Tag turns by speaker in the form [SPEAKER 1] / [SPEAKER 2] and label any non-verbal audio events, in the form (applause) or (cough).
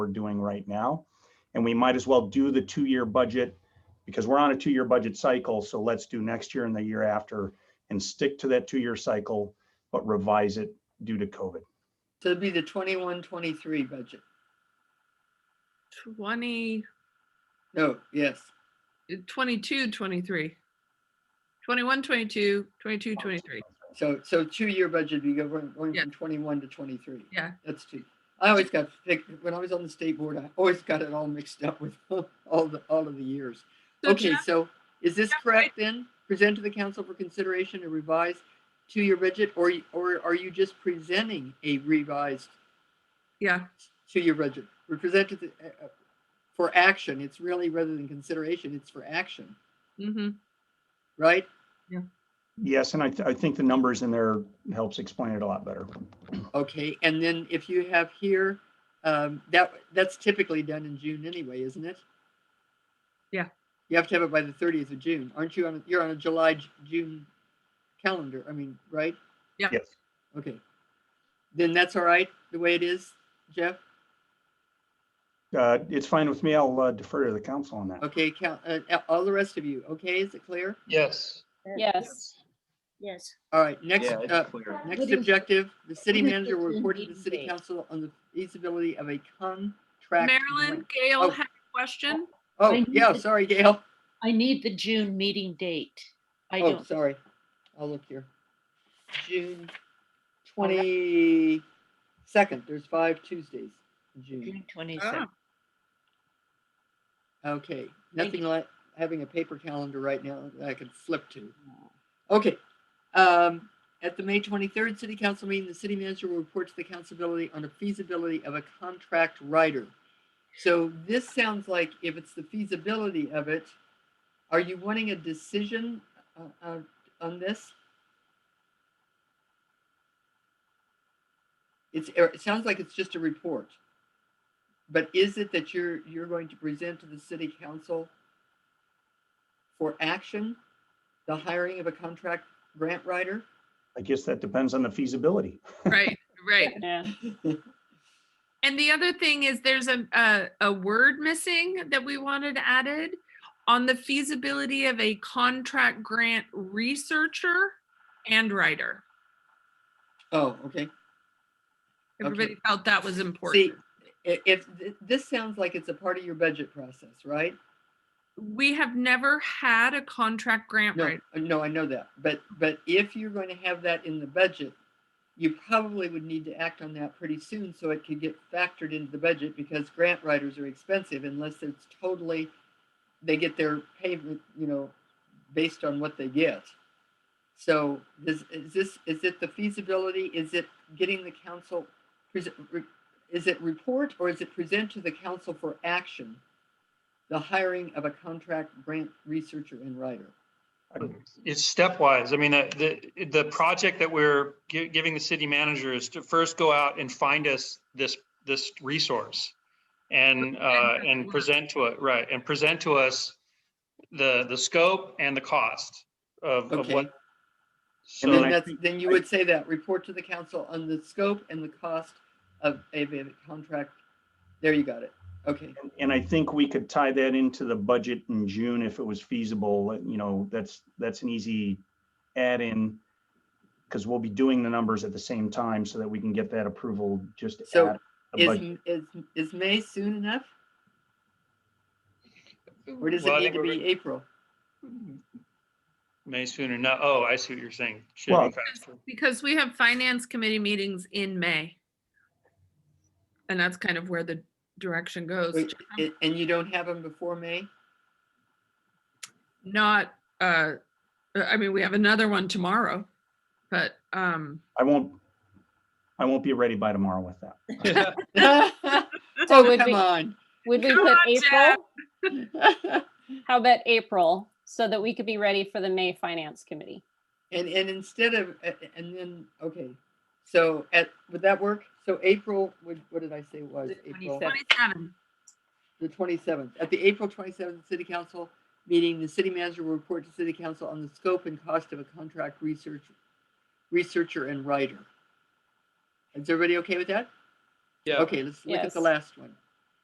[SPEAKER 1] we're doing right now. And we might as well do the two-year budget because we're on a two-year budget cycle. So let's do next year and the year after and stick to that two-year cycle, but revise it due to COVID.
[SPEAKER 2] So it'd be the 21-23 budget.
[SPEAKER 3] Twenty,
[SPEAKER 2] No, yes.
[SPEAKER 3] twenty-two, twenty-three. Twenty-one, twenty-two, twenty-two, twenty-three.
[SPEAKER 2] So, so two-year budget, you go from, going
[SPEAKER 3] Yeah.
[SPEAKER 2] from twenty-one to twenty-three.
[SPEAKER 3] Yeah.
[SPEAKER 2] That's two. I always got, picked- when I was on the state board, I always got it all mixed up with (laughs) all the, all of the years.
[SPEAKER 3] So
[SPEAKER 2] Okay,
[SPEAKER 3] Jeff-
[SPEAKER 2] so is this
[SPEAKER 3] Jeff,
[SPEAKER 2] correct then? Present to the council for consideration a revised two-year budget? Or, y- or are you just presenting a revised
[SPEAKER 3] Yeah,
[SPEAKER 2] two-year budget? We presented the, uh, uh, for action. It's really rather than consideration, it's for action,
[SPEAKER 3] mm-hmm,
[SPEAKER 2] right?
[SPEAKER 1] Yes, and I, th- I think the numbers in there helps explain it a lot better.
[SPEAKER 2] Okay, and then if you have here, um, that, that's typically done in June anyway, isn't it?
[SPEAKER 3] Yeah.
[SPEAKER 2] You have to have it by the thirtieth of June. Aren't you on, a- you're on a July, J- June calendar, I mean, right?
[SPEAKER 1] Yes.
[SPEAKER 2] Okay. Then that's all right, the way it is, Jeff?
[SPEAKER 1] Uh, it's fine with me. I'll uh, defer to the council on that.
[SPEAKER 2] Okay, count, uh, a- all the rest of you, okay, is it clear?
[SPEAKER 4] Yes.
[SPEAKER 5] Yes. Yes.
[SPEAKER 2] All right, next,
[SPEAKER 4] Yeah,
[SPEAKER 2] uh,
[SPEAKER 4] it's clear.
[SPEAKER 2] Next
[SPEAKER 5] Would it-
[SPEAKER 2] objective, the city
[SPEAKER 5] would it
[SPEAKER 2] manager will
[SPEAKER 5] be
[SPEAKER 2] report to the
[SPEAKER 5] meeting
[SPEAKER 2] city
[SPEAKER 5] date?
[SPEAKER 2] council on the feasibility of a contract.
[SPEAKER 3] Marilyn,
[SPEAKER 2] grant.
[SPEAKER 3] Gail
[SPEAKER 2] Oh.
[SPEAKER 3] had a question.
[SPEAKER 5] I
[SPEAKER 2] Oh,
[SPEAKER 5] need
[SPEAKER 2] yeah,
[SPEAKER 5] to-
[SPEAKER 2] sorry, Gail.
[SPEAKER 5] I need the June meeting date. I
[SPEAKER 2] Oh,
[SPEAKER 5] don't, Oh,
[SPEAKER 2] sorry. I'll look here. June twenty-second, there's five Tuesdays in June.
[SPEAKER 5] June twenty-second.
[SPEAKER 2] Okay,
[SPEAKER 5] Thank
[SPEAKER 2] nothing like having a paper calendar right now that I can flip to. Okay. Um, at the May twenty-third city council meeting, the city manager will report to the councilability on the feasibility of a contract writer. So this sounds like if it's the feasibility of it, are you wanting a decision uh, uh, on this? It's, er, it sounds like it's just a report. But is it that you're, you're going to present to the city council for action, the hiring of a contract grant writer?
[SPEAKER 1] I guess that depends on the feasibility.
[SPEAKER 3] Right, right.
[SPEAKER 5] Yeah.
[SPEAKER 3] And the other thing is there's a, a, a word missing that we wanted added on the feasibility of a contract grant researcher and writer.
[SPEAKER 2] Oh, okay. Okay.
[SPEAKER 3] Everybody felt that was
[SPEAKER 2] See,
[SPEAKER 3] important.
[SPEAKER 2] i- if, th- this sounds like it's a part of your budget process, right?
[SPEAKER 3] We have never had a contract grant
[SPEAKER 2] No,
[SPEAKER 3] writer.
[SPEAKER 2] no, I know that, but, but if you're going to have that in the budget, you probably would need to act on that pretty soon so it could get factored into the budget because grant writers are expensive unless it's totally, they get their payment, you know, based on what they get. So this, is this, is it the feasibility? Is it getting the council, pres- re- is it report or is it present to the council for action? The hiring of a contract grant researcher and writer?
[SPEAKER 4] It's stepwise. I mean, uh, the, the project that we're gi- giving the city manager is to first go out and find us this, this resource. And, uh, and present to it, right, and present to us the, the scope and the cost of, of
[SPEAKER 2] Okay.
[SPEAKER 4] what. uh,
[SPEAKER 1] And I
[SPEAKER 2] Then
[SPEAKER 4] So,
[SPEAKER 2] that's,
[SPEAKER 1] think-
[SPEAKER 2] then you
[SPEAKER 1] I-
[SPEAKER 2] would say that, report to the council on the scope and the cost of a a contract. There you got it. Okay,
[SPEAKER 1] And- And I think we could tie that into the budget in June if it was feasible, you know, that's, that's an easy add-in. Because we'll be doing the numbers at the same time so that we can get that approval just
[SPEAKER 2] So
[SPEAKER 1] at the
[SPEAKER 2] is,
[SPEAKER 1] budget.
[SPEAKER 2] is, is May soon enough? Or does
[SPEAKER 4] Well, I
[SPEAKER 2] it need
[SPEAKER 4] think
[SPEAKER 2] to
[SPEAKER 4] we're-
[SPEAKER 2] be April?
[SPEAKER 4] May sooner, no, oh, I see what you're saying. Should
[SPEAKER 1] Well-
[SPEAKER 4] be faster.
[SPEAKER 3] Because we have finance committee meetings in May. And that's kind of where the direction goes,
[SPEAKER 2] Wait, a- And you don't have them before May? (laughs)
[SPEAKER 3] not, uh, I mean, we have another one tomorrow, but, um,
[SPEAKER 1] I won't, I won't be ready by tomorrow with that.
[SPEAKER 2] (laughs)
[SPEAKER 4] (laughs)
[SPEAKER 2] Oh,
[SPEAKER 6] So would
[SPEAKER 2] come
[SPEAKER 6] we-
[SPEAKER 2] on. (laughs)
[SPEAKER 6] Would we
[SPEAKER 3] Come
[SPEAKER 6] put
[SPEAKER 3] on, Jeff.
[SPEAKER 6] April? How about April so that we could be ready for the May Finance Committee?
[SPEAKER 2] And, and instead of, a- a- and then, okay, so at, would that work? So April, what, what did I say it was?
[SPEAKER 5] The
[SPEAKER 2] April?
[SPEAKER 5] 27th.
[SPEAKER 3] 27.
[SPEAKER 2] the twenty-seventh. At the April twenty-seventh city council meeting, the city manager will report to city council on the scope and cost of a contract research, researcher and writer. Is everybody okay with that?
[SPEAKER 4] Yeah.
[SPEAKER 2] Okay, let's look at the
[SPEAKER 6] Yes.
[SPEAKER 2] last one.